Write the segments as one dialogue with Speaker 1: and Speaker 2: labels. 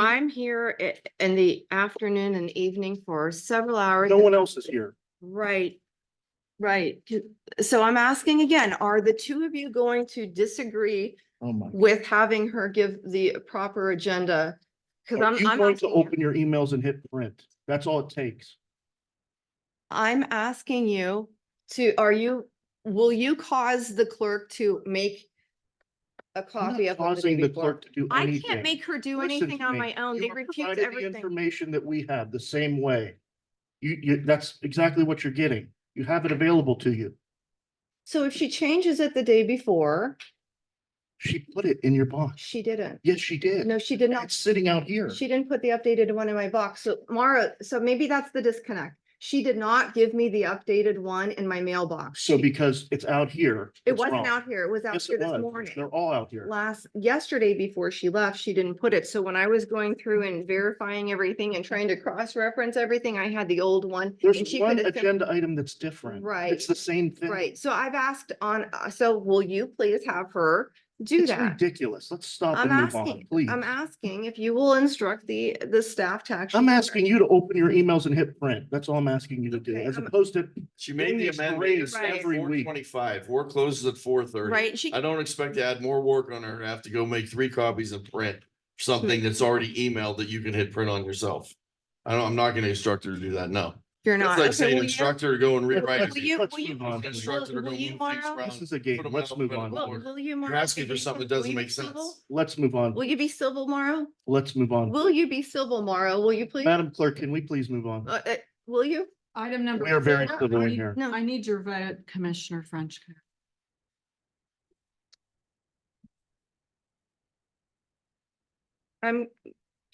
Speaker 1: I'm here i- in the afternoon and evening for several hours.
Speaker 2: No one else is here.
Speaker 1: Right, right. C- So I'm asking again, are the two of you going to disagree
Speaker 2: Oh my.
Speaker 1: with having her give the proper agenda? Cause
Speaker 2: Are
Speaker 1: I'm,
Speaker 2: you
Speaker 1: I'm
Speaker 2: going to
Speaker 1: asking you-
Speaker 2: open your emails and hit print? That's all it takes.
Speaker 1: I'm asking you to, are you, will you cause the clerk to make a
Speaker 2: I'm
Speaker 1: copy
Speaker 2: not
Speaker 1: of what the day
Speaker 2: Causing the
Speaker 1: before?
Speaker 2: clerk to do
Speaker 1: I
Speaker 2: anything.
Speaker 1: can't make her do
Speaker 2: Listen
Speaker 1: anything
Speaker 2: to
Speaker 1: on
Speaker 2: me.
Speaker 1: my own.
Speaker 2: You
Speaker 1: They
Speaker 2: were
Speaker 1: recuse
Speaker 2: provided the
Speaker 1: everything.
Speaker 2: Information that we have the same way. You, you, that's exactly what you're getting. You have it available to you.
Speaker 1: So if she changes it the day before,
Speaker 2: She put it in your box.
Speaker 1: she didn't.
Speaker 2: Yes, she did.
Speaker 1: No, she did not.
Speaker 2: It's sitting out here.
Speaker 1: She didn't put the updated one in my box. So Mara, so maybe that's the disconnect. She did not give me the updated one in my mailbox.
Speaker 2: So
Speaker 1: She-
Speaker 2: because it's out here.
Speaker 1: It
Speaker 2: it's
Speaker 1: wasn't
Speaker 2: wrong.
Speaker 1: out here. It was out
Speaker 2: Yes,
Speaker 1: here
Speaker 2: it
Speaker 1: this
Speaker 2: was.
Speaker 1: morning.
Speaker 2: They're all out here.
Speaker 1: last, yesterday before she left, she didn't put it. So when I was going through and verifying everything and trying to cross-reference everything, I had the old one. and
Speaker 2: There's
Speaker 1: she
Speaker 2: one
Speaker 1: could have sim-
Speaker 2: agenda item that's different.
Speaker 1: Right.
Speaker 2: It's the same thing.
Speaker 1: Right, so I've asked on, uh, so will you please have her do
Speaker 2: It's
Speaker 1: that?
Speaker 2: ridiculous. Let's stop
Speaker 1: I'm
Speaker 2: and move on,
Speaker 1: asking,
Speaker 2: please.
Speaker 1: I'm asking if you will instruct the, the staff to actually.
Speaker 2: I'm asking you to open your emails and hit print. That's all I'm asking you to do,
Speaker 1: Okay,
Speaker 2: as
Speaker 1: I'm-
Speaker 2: opposed to,
Speaker 3: She
Speaker 2: Getting
Speaker 3: made the
Speaker 2: these
Speaker 3: amendment
Speaker 2: grades
Speaker 1: Right.
Speaker 2: every
Speaker 3: four
Speaker 2: week.
Speaker 3: twenty-five, war closes at four thirty.
Speaker 1: Right, she,
Speaker 3: I don't expect to add more work on her to have to go make three copies and print
Speaker 1: Hmm.
Speaker 3: something that's already emailed that you can hit print on yourself. I don't, I'm not gonna instruct her to do that, no.
Speaker 1: you're not.
Speaker 3: That's like
Speaker 1: Okay,
Speaker 3: saying
Speaker 1: will you-
Speaker 3: instruct her to go and rewrite.
Speaker 1: Will you,
Speaker 3: it.
Speaker 2: Let's
Speaker 1: will you,
Speaker 2: move on.
Speaker 1: will-
Speaker 3: Instructor to
Speaker 1: will
Speaker 3: go
Speaker 1: you,
Speaker 3: move things
Speaker 1: Mara?
Speaker 3: around.
Speaker 2: this is a game.
Speaker 3: Put 'em
Speaker 2: Let's
Speaker 3: out,
Speaker 2: move
Speaker 3: put 'em
Speaker 2: on.
Speaker 3: out.
Speaker 1: Will,
Speaker 3: Lord.
Speaker 1: will you? Mara,
Speaker 3: You're
Speaker 1: will
Speaker 3: asking
Speaker 1: you
Speaker 3: for
Speaker 1: be
Speaker 3: something that
Speaker 1: civil- will
Speaker 3: doesn't
Speaker 1: you be
Speaker 3: make sense.
Speaker 1: civil?
Speaker 2: Let's move on.
Speaker 1: Will you be civil, Morrow?
Speaker 2: Let's move on.
Speaker 1: Will you be civil, Morrow? Will you please?
Speaker 2: Um, Madam Clerk, can we please move on?
Speaker 1: Uh, uh, Will you?
Speaker 4: Item number.
Speaker 2: We are very
Speaker 4: four,
Speaker 2: civil
Speaker 4: I
Speaker 2: in
Speaker 4: need-
Speaker 2: here.
Speaker 1: No.
Speaker 4: I need your vote, Commissioner Frenchco.
Speaker 1: I'm,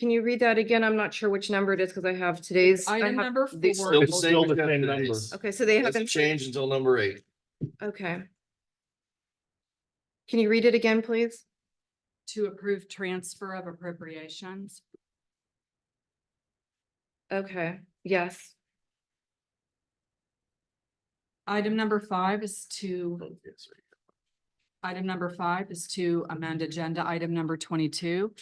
Speaker 1: can you read that again? I'm not sure which number it is because I have today's. I
Speaker 4: Item
Speaker 1: have-
Speaker 4: number
Speaker 1: they
Speaker 4: four.
Speaker 3: Still the
Speaker 2: It's still
Speaker 3: same
Speaker 2: the same
Speaker 3: agenda,
Speaker 2: number.
Speaker 3: it's-
Speaker 1: Okay, so they
Speaker 3: Doesn't
Speaker 1: haven't,
Speaker 3: change until number eight.
Speaker 1: okay. Can you read it again, please?
Speaker 4: To approve transfer of appropriations.
Speaker 1: Okay, yes.
Speaker 4: Item number five is to, item number five is to amend agenda item number twenty-two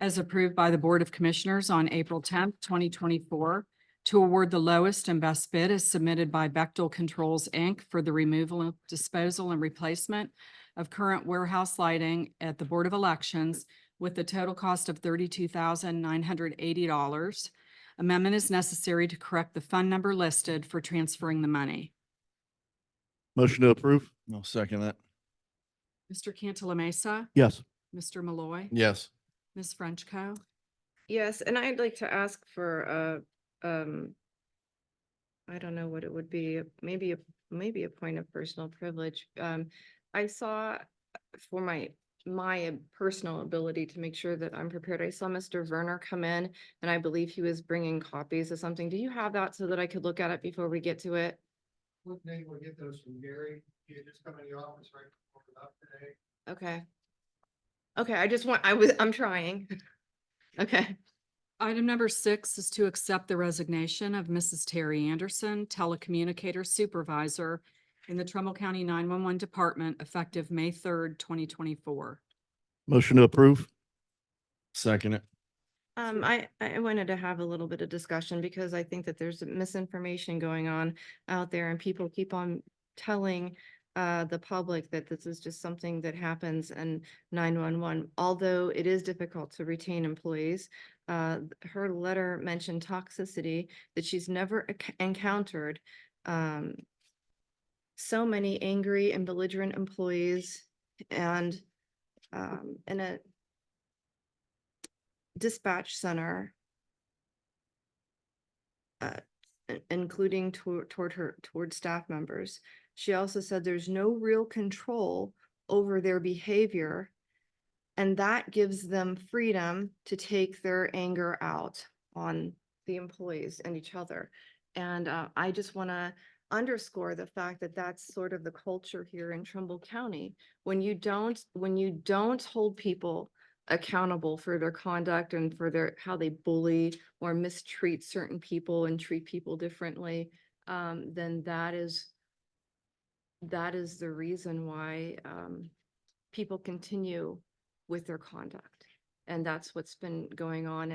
Speaker 4: as approved by the Board of Commissioners on April tenth, twenty twenty-four to award the lowest and best bid as submitted by Bechtel Controls, Inc. for the removal, disposal, and replacement of current warehouse lighting at the Board of Elections with a total cost of thirty-two thousand nine hundred eighty dollars. Amendment is necessary to correct the fund number listed for transferring the money.
Speaker 2: Motion to approve?
Speaker 3: No, second that.
Speaker 4: Mr. Cantala Mesa,
Speaker 2: Yes.
Speaker 4: Mr. Malloy,
Speaker 3: Yes.
Speaker 4: Ms. Frenchco.
Speaker 1: Yes, and I'd like to ask for a, um, I don't know what it would be, maybe, a maybe a point of personal privilege. Um, I saw for my, my personal ability to make sure that I'm prepared, I saw Mr. Werner come in and I believe he was bringing copies of something. Do you have that so that I could look at it before we get to it?
Speaker 5: Maybe we'll get those from Gary. He had just come in the office right before we left today.
Speaker 1: Okay. Okay, I just want, I was, I'm trying. Okay,
Speaker 4: Item number six is to accept the resignation of Mrs. Terry Anderson, telecommunicator supervisor in the Trumbull County nine-one-one department effective May third, twenty twenty-four.
Speaker 2: Motion to approve?
Speaker 3: Second it.
Speaker 1: um, I, I wanted to have a little bit of discussion because I think that there's misinformation going on out there and people keep on telling uh, the public that this is just something that happens in nine-one-one. Although it is difficult to retain employees, uh, her letter mentioned toxicity that she's never ac- encountered. Um, so many angry and belligerent employees and, um, in a dispatch center. Uh, i- including toward, toward her, toward staff members. She also said there's no real control over their behavior. And that gives them freedom to take their anger out on the employees and each other. And uh, I just want to underscore the fact that that's sort of the culture here in Trumbull County. When you don't, when you don't hold people accountable for their conduct and for their, how they bully or mistreat certain people and treat people differently, um, then that is, that is the reason why, um, people continue with their conduct. And that's what's been going on